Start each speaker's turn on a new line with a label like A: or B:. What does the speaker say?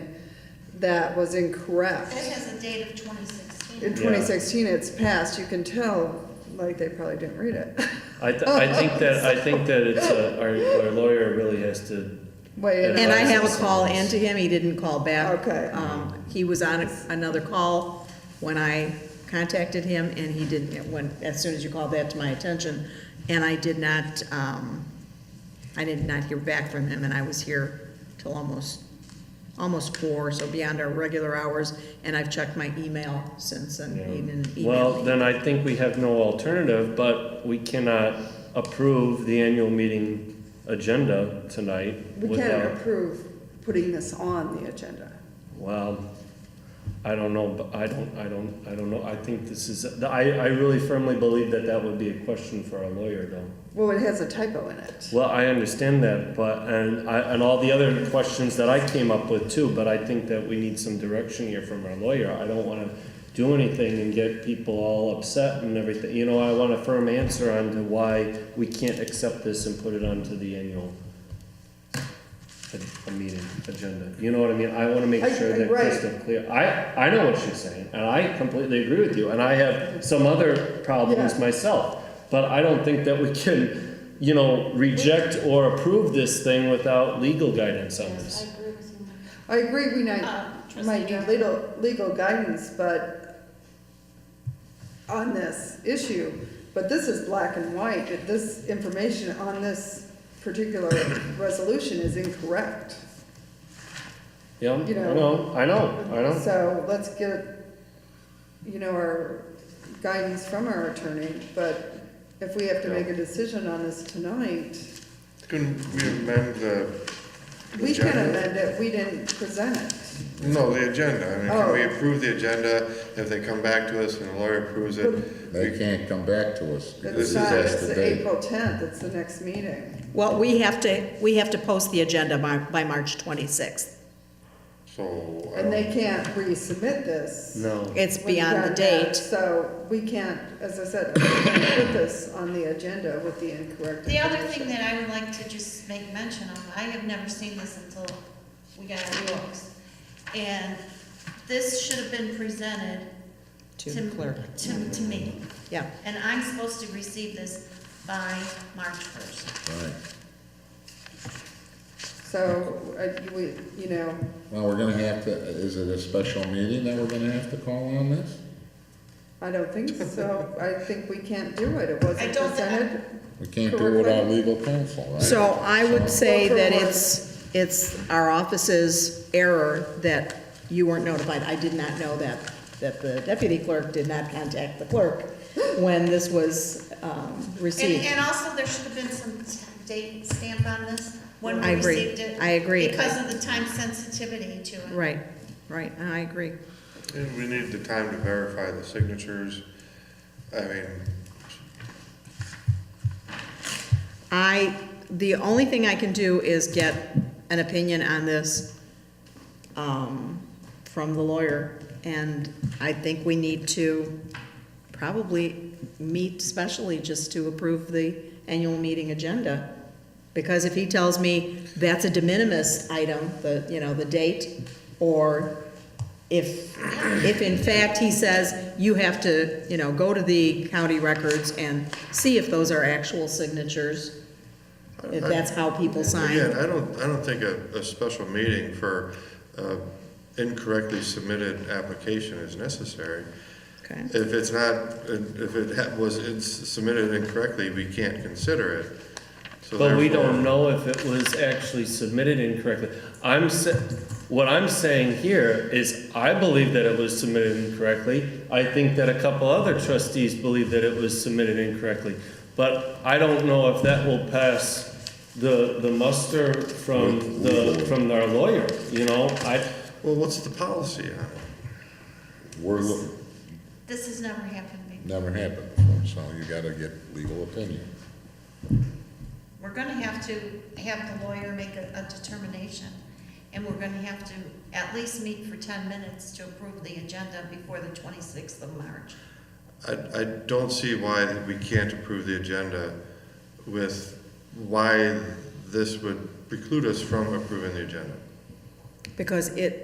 A: that was
B: It
A: incorrect.
B: has a date of twenty
A: In
B: sixteen.
C: Yeah.
A: twenty sixteen, it's passed, you can tell, like, they probably didn't read it.
C: I, th- I think that, I think that it's, uh, our, our lawyer really has to,
A: Way in.
D: And I
A: on-
D: have a call into him, he didn't call back.
A: Okay.
D: Um, he was on a- another call when I contacted him, and he didn't, when, as soon as you called that to my attention, and I did not, um, I did not hear back from him, and I was here till almost, almost four, so beyond our regular hours, and I've checked my email since, and he didn't
C: you know. Well,
D: email me.
C: then I think we have no alternative, but we cannot approve the annual meeting agenda tonight
A: We can't
C: without.
A: approve putting this on the agenda.
C: Well, I don't know, but I don't, I don't, I don't know. I think this is, I, I really firmly believe that that would be a question for our lawyer though.
A: Well, it has a typo in it.
C: Well, I understand that, but, and I, and all the other questions that I came up with too, but I think that we need some direction here from our lawyer. I don't wanna do anything and get people all upset and everything, you know, I want a firm answer on to why we can't accept this and put it onto the annual a- a meeting agenda, you know what I mean? I wanna make
A: I-
C: sure
A: I-
C: that
A: right.
C: crystal clear. I, I know what she's saying, and I completely agree with you, and I have some other problems
A: Yeah.
C: myself. But I don't think that we can, you know, reject or approve this thing without legal guidance on
B: Yes,
C: this.
B: I agree with you.
A: I agree we might,
B: Mike. Uh, trustee
A: might need
B: Dodd.
A: legal, legal guidance, but on this issue, but this is black and white, that this information on this particular resolution is incorrect.
C: Yeah, I
A: You know.
C: know, I know, I know.
A: So let's get, you know, our guidance from our attorney, but if we have to make a decision on this tonight,
E: Can we amend the?
A: we can
E: agenda?
A: amend it, we didn't present it.
E: No, the agenda. I mean,
A: Oh.
E: can we approve the agenda if they come back to us and the lawyer approves it?
F: They can't come back to us.
E: This
A: It's
E: is
A: not,
F: that's
A: it's
F: the date.
A: April tenth, it's the next meeting.
D: Well, we have to, we have to post the agenda by, by March twenty-sixth.
E: So, I
A: And they
E: don't,
A: can't resubmit this.
C: No,
D: It's
A: when you
D: beyond the
A: got that,
D: date.
A: So we can't, as I said, we can't put this on the agenda with the incorrect.
B: The other
A: information.
B: thing that I would like to just make mention of, I have never seen this until we got our books. And this should have been presented
D: To the clerk.
B: To, to me.
D: Yeah,
B: And I'm supposed to receive this by March first.
F: Right.
A: So, uh, you- we, you know,
F: Well, we're gonna have to, is it a special meeting that we're gonna have to call on this?
A: I don't think so, I think we can't do it, it
B: I
A: wasn't
B: don't-
A: presented.
F: We can't do it without legal counsel, right?
D: So I would say
A: Well, for
D: that
A: what?
D: it's, it's our office's error that you weren't notified. I did not know that, that the deputy clerk did not contact the clerk when this was um,
B: And,
D: received.
B: and also, there should have been some t- date stamp on this, when
D: I
B: we
D: agree.
B: received it.
D: I agree.
B: Because of the time sensitivity to it.
D: Right, right, I agree.
E: and we need the time to verify the signatures. I mean,
D: I, the only thing I can do is get an opinion on this um, from the lawyer, and I think we need to probably meet specially just to approve the annual meeting agenda. Because if he tells me that's a de minimis item, the, you know, the date, or if, if in fact he says you have to, you know, go to the county records and see if those are actual signatures, if that's how people
E: again,
D: sign.
E: I don't, I don't think a, a special meeting for, uh, incorrectly submitted application is necessary.
D: Okay.
E: If it's not, if it ha- was, it's submitted incorrectly, we can't consider it. So
C: but we
E: therefore-
C: don't know if it was actually submitted incorrectly. I'm sa- what I'm saying here is I believe that it was submitted incorrectly. I think that a couple other trustees believe that it was submitted incorrectly. But I don't know if that will pass the, the muster from the, from our lawyer, you know? I,
E: Well, what's the policy on it?
F: We're, look-
B: This has never happened before.
F: never happened before, so you gotta get legal opinion.
B: We're gonna have to have the lawyer make a, a determination, and we're gonna have to at least meet for ten minutes to approve the agenda before the twenty-sixth of March.
E: I, I don't see why we can't approve the agenda with why this would preclude us from approving the agenda.
D: Because it,